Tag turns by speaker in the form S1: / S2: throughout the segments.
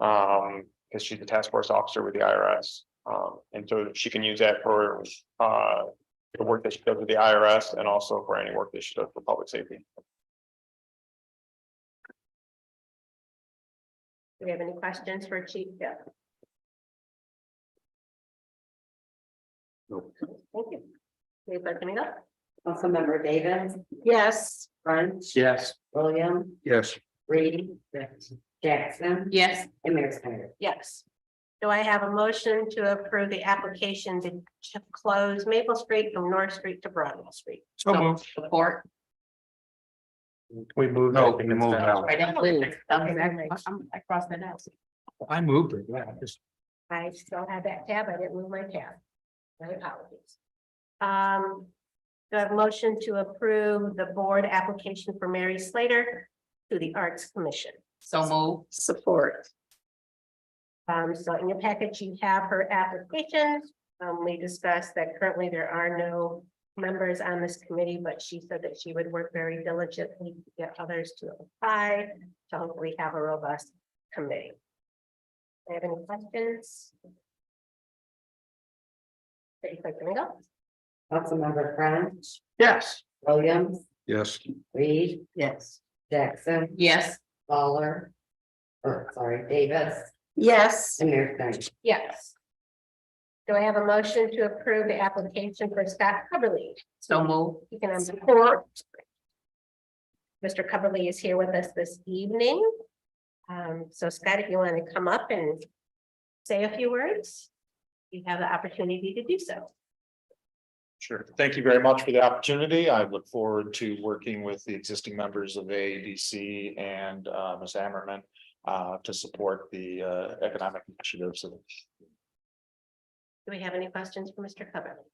S1: Um, because she's a task force officer with the IRS. Um, and so she can use that for, uh, the work that she does with the IRS and also for any work that she does for public safety.
S2: Do we have any questions for Chief Bill?
S1: Nope.
S2: Thank you. Please let me know.
S3: Councilmember Davis,
S2: Yes.
S3: French,
S1: Yes.
S3: William,
S1: Yes.
S3: Reed. Jackson.
S4: Yes,
S3: And Mayor Snyder.
S2: Yes. Do I have a motion to approve the application to to close Maple Street from North Street to Broadwell Street?
S1: So moved.
S4: support.
S1: We moved.
S5: No, we moved now.
S4: Right, I'm-
S2: Please.
S4: I'm- I'm- I crossed that out.
S5: I moved it, yeah, just
S2: I still have that tab. I didn't move my tab. My apologies. Um, do I have a motion to approve the board application for Mary Slater to the Arts Commission?
S4: So move.
S3: Support.
S2: Um, so in your package, you have her applications. Um, we discussed that currently there are no members on this committee, but she said that she would work very diligently to get others to apply. To hopefully have a robust committee. Do you have any questions? Pretty quick, can we go?
S3: Councilmember French,
S5: Yes.
S3: Williams,
S5: Yes.
S3: Reed,
S4: Yes.
S3: Jackson,
S4: Yes,
S3: Lawler. Or sorry, Davis
S2: Yes.
S3: and Mayor Snyder.
S2: Yes. Do I have a motion to approve the application for Scott Hubbardly
S4: so move.
S2: Economic Support. Mr. Coverly is here with us this evening. Um, so Scott, if you want to come up and say a few words, you have the opportunity to do so.
S6: Sure. Thank you very much for the opportunity. I look forward to working with the existing members of AADC and uh Ms. Ammerman. Uh, to support the uh economic initiatives of
S2: Do we have any questions for Mr. Coverly?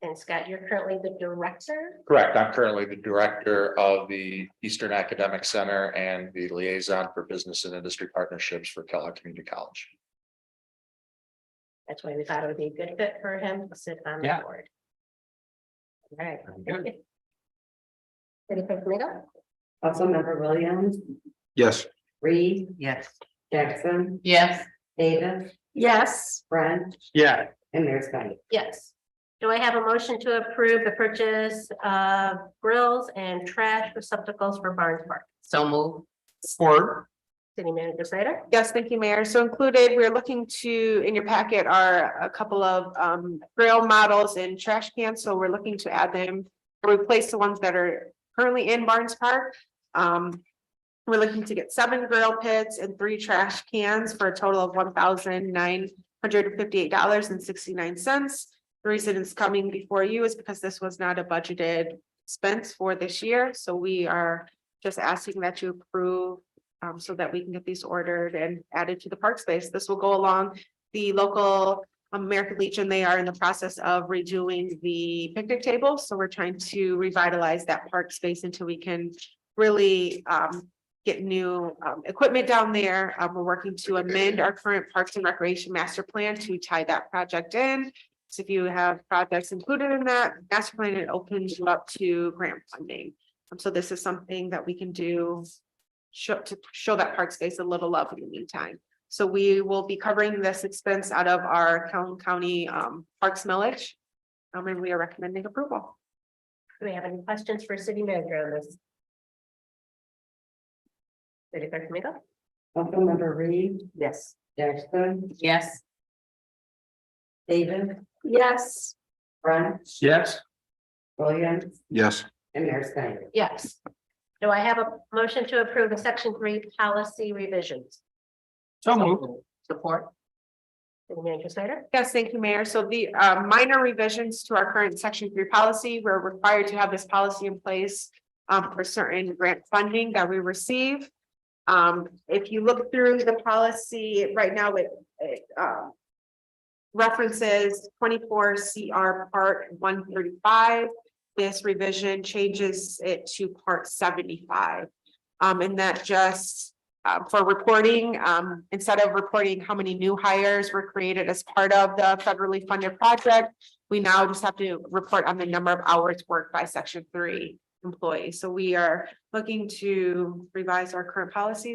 S2: And Scott, you're currently the director.
S6: Correct. I'm currently the director of the Eastern Academic Center and the liaison for business and industry partnerships for Kellogg Community College.
S2: That's why we thought it would be a good fit for him to sit on the
S5: Yeah.
S2: board. All right. Ready for me to go?
S3: Councilmember Williams,
S5: Yes.
S3: Reed,
S4: Yes.
S3: Jackson,
S4: Yes,
S3: Davis,
S2: Yes.
S3: French,
S5: Yeah,
S3: and Mayor Snyder.
S2: Yes. Do I have a motion to approve the purchase of grills and trash receptacles for Barnes Park?
S4: so move.
S5: or,
S2: City Manager Slater?
S7: Yes, thank you, Mayor. So included, we're looking to, in your packet are a couple of um grill models and trash cans, so we're looking to add them. Replace the ones that are currently in Barnes Park. Um, we're looking to get seven grill pits and three trash cans for a total of one thousand nine hundred and fifty-eight dollars and sixty-nine cents. The reason it's coming before you is because this was not a budgeted expense for this year, so we are just asking that you approve um, so that we can get these ordered and added to the park space. This will go along the local American Legion. They are in the process of redoing the picnic table, so we're trying to revitalize that park space until we can really um get new um equipment down there. Um, we're working to amend our current Parks and Recreation Master Plan to tie that project in. So if you have projects included in that master plan, it opens you up to grant funding. Um, So this is something that we can do show to show that park space a little love in the meantime. So we will be covering this expense out of our Calhoun County um Parks millage. Um, and we are recommending approval.
S2: Do we have any questions for City Manager on this? City Clerk Domingo?
S3: Councilmember Reed,
S4: Yes.
S3: Jackson,
S4: Yes,
S3: Davis,
S2: Yes.
S3: French,
S5: yes.
S3: Williams,
S5: Yes.
S3: and Mayor Snyder.
S2: Yes. Do I have a motion to approve the section three policy revisions?
S5: So
S4: so
S5: moved.
S4: moved. Support.
S2: City Manager Slater?
S7: Yes, thank you, Mayor. So the uh minor revisions to our current section three policy, we're required to have this policy in place. um, for certain grant funding that we receive. Um, if you look through the policy right now with it um. References twenty-four CR part one thirty-five. This revision changes it to part seventy-five. Um, and that just uh, for reporting, um, instead of reporting how many new hires were created as part of the federally funded project, we now just have to report on the number of hours worked by section three employees. So we are looking to revise our current policies